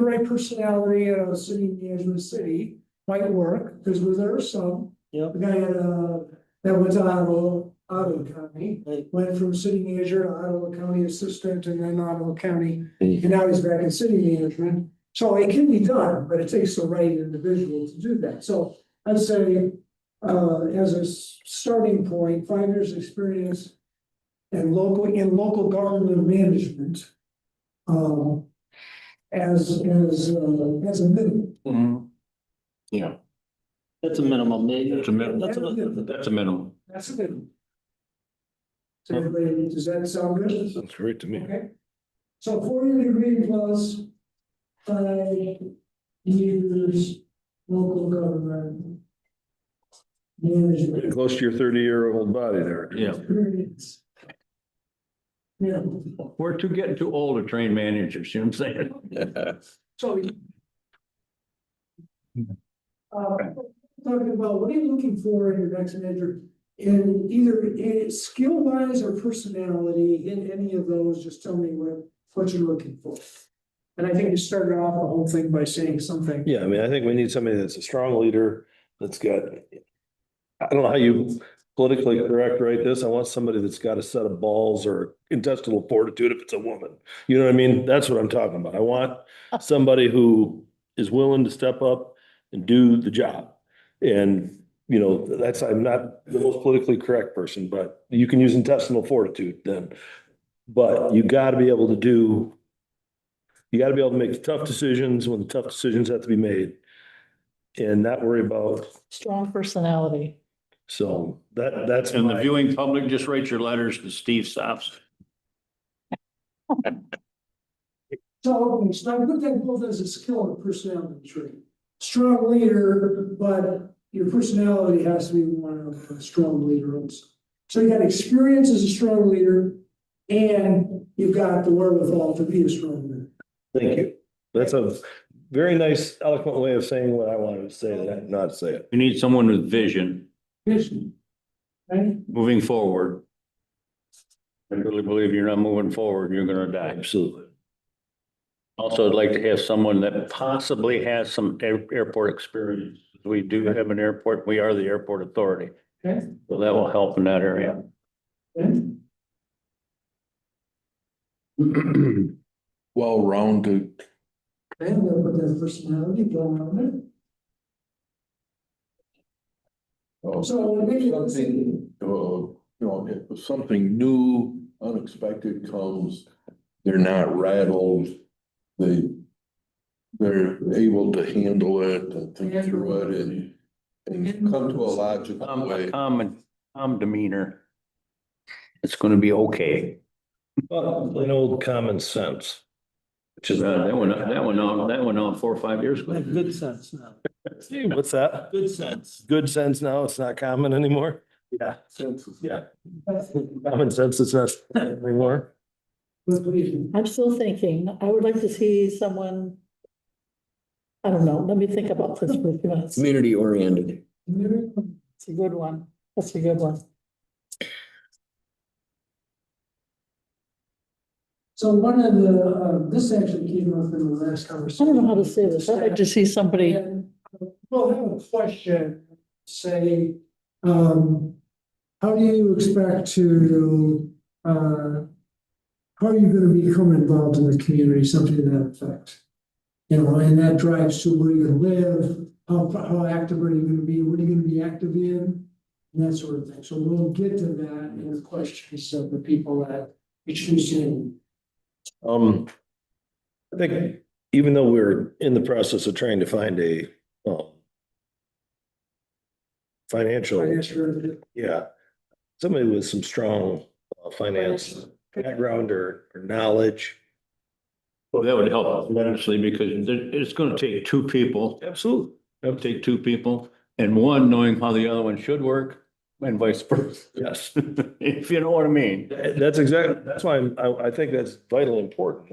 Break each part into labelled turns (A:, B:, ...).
A: right personality at a city in Angela City might work, because there are some.
B: Yep.
A: The guy had, uh, that was Ottawa, Ottawa County,
B: Right.
A: went from city manager to Ottawa County Assistant and then Ottawa County.
C: Yeah.
A: And now he's back in city management, so it can be done, but it takes the right individual to do that, so I'd say. Uh, as a s- starting point, five years' experience. And local, in local government management. Um. As, as, uh, as a minimum.
C: Yeah,
B: That's a minimum, maybe.
C: That's a minimum.
B: That's a-
C: that's a minimum.
A: That's a minimum. So everybody, does that sound good?
C: That's great to me.
A: Okay. So four-year degree plus five years local government management
D: Close to your thirty-year-old body there.
C: Yeah,
A: experience. Yeah,
C: we're too, getting too old to train managers, you know what I'm saying?
A: so. Uh, talking about, what are you looking for in your next manager? In either, in skill wise or personality, in any of those, just tell me what, what you're looking for. And I think you started off the whole thing by saying something.
D: Yeah, I mean, I think we need somebody that's a strong leader, that's got. I don't know how you politically correct write this. I want somebody that's got a set of balls or intestinal fortitude if it's a woman. You know what I mean? That's what I'm talking about. I want somebody who is willing to step up and do the job. And, you know, that's, I'm not the most politically correct person, but you can use intestinal fortitude then. But you gotta be able to do you gotta be able to make tough decisions when the tough decisions have to be made. And not worry about,
E: Strong personality.
D: so that, that's.
C: And the
D: my-
C: viewing public, just write your letters to Steve Stops.
A: So, so I put that both as a skill and personality trait. Strong leader, but your personality has to be one of a strong leader also. So you got experience as a strong leader and you've got the wherewithal to be a strong leader.
D: Thank you. That's a very nice eloquent way of saying what I wanted to say, that I did not say it.
C: You need someone with vision
A: Vision. Right?
C: moving forward. I really believe you're not moving forward, you're gonna die.
D: Absolutely.
C: Also, I'd like to have someone that possibly has some air- airport experience. We do have an airport, we are the airport authority.
A: Okay.
C: So that will help in that area.
A: Okay.
F: well-rounded
A: Okay, I'm gonna put that personality going on it.
F: Oh.
A: So maybe let's see.
F: Something, uh, you know, if something new, unexpected comes, they're not rattled. They, they're able to handle it and think through it and, and come to a logical
C: Um,
F: way.
C: Common, calm demeanor. It's gonna be okay.
D: Well, plain old common sense. Which is.
C: Uh, That one, that one, uh, that one, uh, four or five years ago.
B: Have Good sense now.
D: Hey, What's that?
B: Good sense.
D: Good sense now, it's not common anymore? Yeah. Yeah. Common sense is not anymore.
A: Let's leave.
E: I'm still thinking, I would like to see someone. I don't know, let me think about this for a few minutes.
G: Community oriented.
E: It's a good one. That's a good one.
A: So one of the, uh, this actually came up in the last
E: I
A: conversation.
E: don't know how to say this. I'd like to see somebody.
A: And uh, We'll have a question, say, um, how do you expect to, uh, how are you gonna become involved in the community, something to that effect? You know, and that drives to where you live, how, how active are you gonna be, what are you gonna be active in? And that sort of thing, so we'll get to that in the questions of the people that we choose in.
D: Um, I think even though we're in the process of trying to find a, um, financial,
A: Financial-
D: yeah, somebody with some strong uh, finance background or, or knowledge.
C: Well, that would help tremendously because there- it's gonna take two people,
D: Absolutely.
C: it'll take two people and one knowing how the other one should work and vice versa.
D: Yes.
C: If you know what I mean.
D: That's exactly, that's why I'm- I, I think that's vitally important,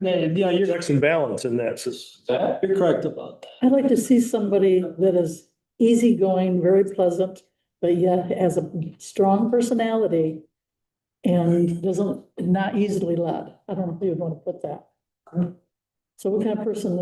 D: that
B: Yeah, you're,
D: checks and balance in that. sys-
B: you're correct about that.
E: I'd like to see somebody that is easygoing, very pleasant, but yet has a strong personality. And doesn't, not easily led. I don't know if you'd want to put that.
A: Okay.
E: So what kind of person